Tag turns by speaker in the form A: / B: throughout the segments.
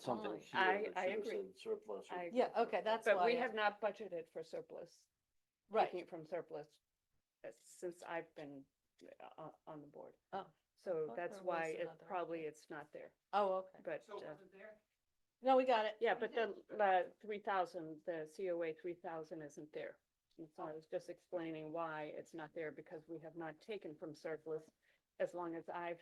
A: something
B: fine.
A: here
C: Oh, I-
A: that
C: I
A: should have
C: agree.
A: said Surplus. or
C: I agree.
B: Yeah, okay, that's why.
C: But we
B: I-
C: have not budgeted for surplus, taking
B: Right,
C: it from surplus, uh, since I've been uh, uh, on the board.
B: oh,
C: So
B: thought
C: that's
B: there
C: why
B: was
C: it
B: another.
C: probably it's not there,
B: oh, okay.
C: but,
D: So it
C: uh,
D: wasn't there?
B: No, we got it.
C: yeah, but the, the three thousand, the COA three thousand isn't there. And so I was just explaining why it's not there, because we have not taken from surplus as long as I've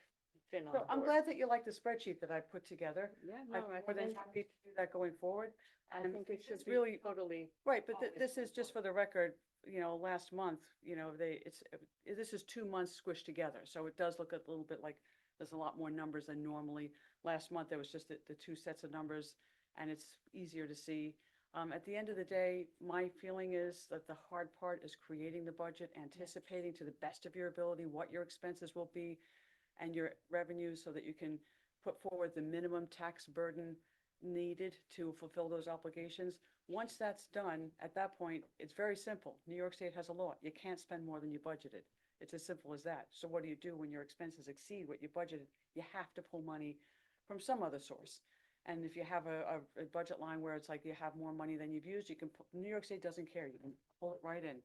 C: been on the
E: So
C: board.
E: I'm glad that you like the spreadsheet that I put together.
C: Yeah,
E: I'm
C: no, I
E: more than
C: think,
E: happy to do that going forward.
C: I
E: and
C: think it should
E: it's
C: be
E: really-
C: totally,
E: Right, but thi-
D: Always
E: this is just for the record, you know, last month, you know, they, it's, it- this is two months squished together. So it does look a little bit like there's a lot more numbers than normally. Last month, there was just the, the two sets of numbers and it's easier to see. Um, at the end of the day, my feeling is that the hard part is creating the budget, anticipating to the best of your ability what your expenses will be and your revenues so that you can put forward the minimum tax burden needed to fulfill those obligations. Once that's done, at that point, it's very simple. New York State has a law. You can't spend more than you budgeted. It's as simple as that. So what do you do when your expenses exceed what you budgeted? You have to pull money from some other source. And if you have a, a, a budget line where it's like you have more money than you've used, you can, pu- New York State doesn't care. You can pull it right in.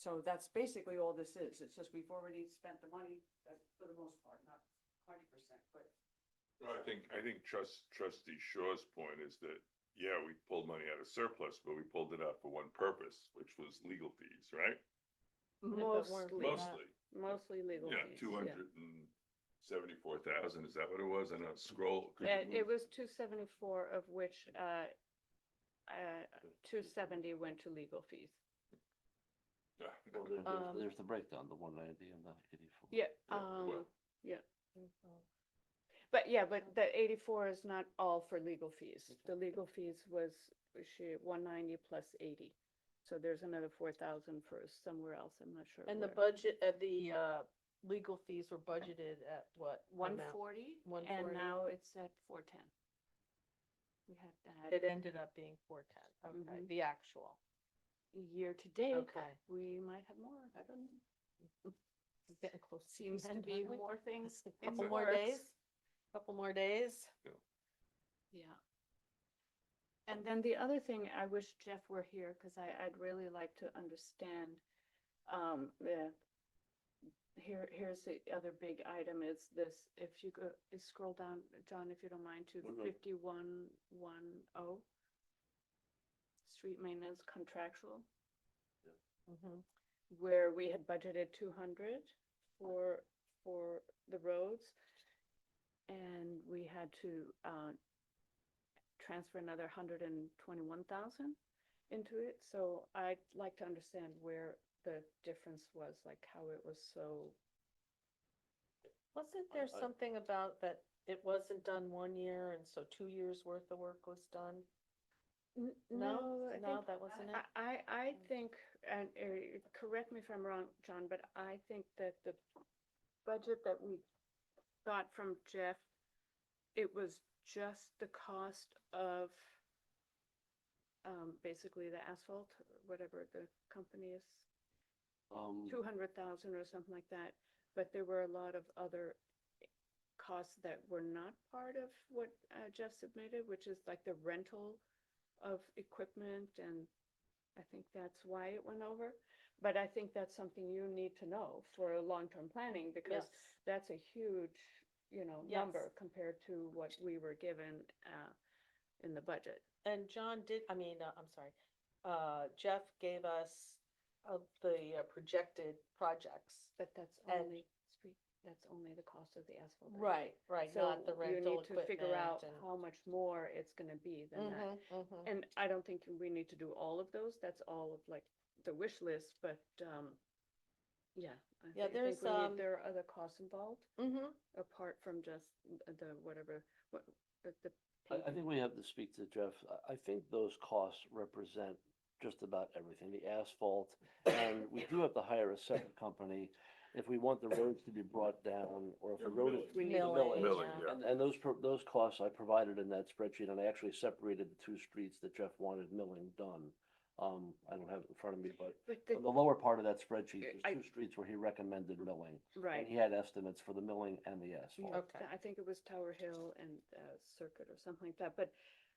E: So that's basically all this is. It's just we've already spent the money, uh, for the most part, not hundred percent, but
F: No, I think, I think trust, trustee Shaw's point is that, yeah, we pulled money out of surplus, but we pulled it out for one purpose, which was legal fees, right?
C: mostly,
B: Legal.
F: Mostly,
C: mostly legal
F: yeah,
C: fees.
F: two hundred and seventy-four thousand, is that what it was? I know, scroll. could you
C: It, it
F: move-
C: was two seventy-four, of which, uh, uh, two seventy went to legal fees.
F: Yeah.
A: Well, there-
B: Um,
A: there's- There's the breakdown, the one ninety and the eighty-four.
C: Yeah,
F: Yeah,
C: um,
F: well.
C: but yeah, but the eighty-four is not all for legal fees. The legal fees was, she, one ninety plus eighty. So there's another four thousand for somewhere else, I'm not sure.
B: And the
C: where.
B: budget, uh, the, uh, legal fees were budgeted at what?
C: One
B: amount?
C: forty, and
B: 140.
C: now it's at four ten. We had
B: It
C: that
B: ended up being four ten, okay,
C: Mhm.
B: the actual,
C: year to date,
B: okay.
C: we might have more, I don't know.
B: We're Getting close. to
C: Seems
B: the
C: to
B: end,
C: be
B: aren't we?
C: more things. in
B: Couple
C: the
B: more
C: works.
B: days, couple more days.
C: Yeah. And then the other thing, I wish Jeff were here, because I, I'd really like to understand, um, the, here, here's the other big item is this, if you go, is scroll down, John, if you don't mind, to
A: Mhm.
C: fifty-one, one, oh. Street maintenance contractual,
B: Mhm.
C: where we had budgeted two hundred for, for the roads. And we had to, uh, transfer another hundred and twenty-one thousand into it, so I'd like to understand where the difference was, like how it was so,
B: Wasn't there
A: I-
B: something about that it wasn't done one year and so two years worth of work was done?
C: N-
B: No,
C: no, I
B: no,
C: think,
B: that wasn't it? Mm.
C: I, I, I think, and, uh, correct me if I'm wrong, John, but I think that the budget that we got from Jeff, it was just the cost of, um, basically the asphalt, whatever the company is
A: Um,
C: two hundred thousand or something like that, but there were a lot of other costs that were not part of what uh, Jeff submitted, which is like the rental of equipment, and I think that's why it went over. But I think that's something you need to know for long-term planning, because
B: Yes.
C: that's a huge, you know,
B: Yes.
C: number compared to what we were given uh, in the budget.
B: And John did, I mean, uh, I'm sorry, uh, Jeff gave us uh, the uh, projected projects.
C: But that's
B: And-
C: only, street- that's only the cost of the asphalt. I think.
B: Right, right, not the
C: So you
B: rental
C: need to
B: equipment
C: figure out
B: and-
C: how much more it's gonna be than that.
B: Mhm, mhm.
C: And I don't think we need to do all of those, that's all of like the wish list, but, um, yeah. I
B: Yeah,
C: thi- I think
B: there's,
C: we need-
B: um,
C: There are other costs involved,
B: Mhm.
C: apart from just the whatever, what, the. the
A: I, I
C: paving.
A: think we have to speak to Jeff. I, I think those costs represent just about everything, the asphalt. And we do have to hire a separate company if we want the roads to be brought down or if the
F: Yeah,
A: road is.
F: millage.
A: the
B: Millage,
A: millage.
F: Milling, yeah.
A: And, and those, pro- those costs I provided in that spreadsheet, and I actually separated the two streets that Jeff wanted milling done. Um, I don't have it in front of me, but
C: But the,
A: the lower part of that spreadsheet,
C: Uh,
A: there's
C: I-
A: two streets where he recommended milling. And
C: right,
A: he had estimates for the milling and the asphalt.
B: Okay.
C: I think it was Tower Hill and uh, Circuit or something like that, but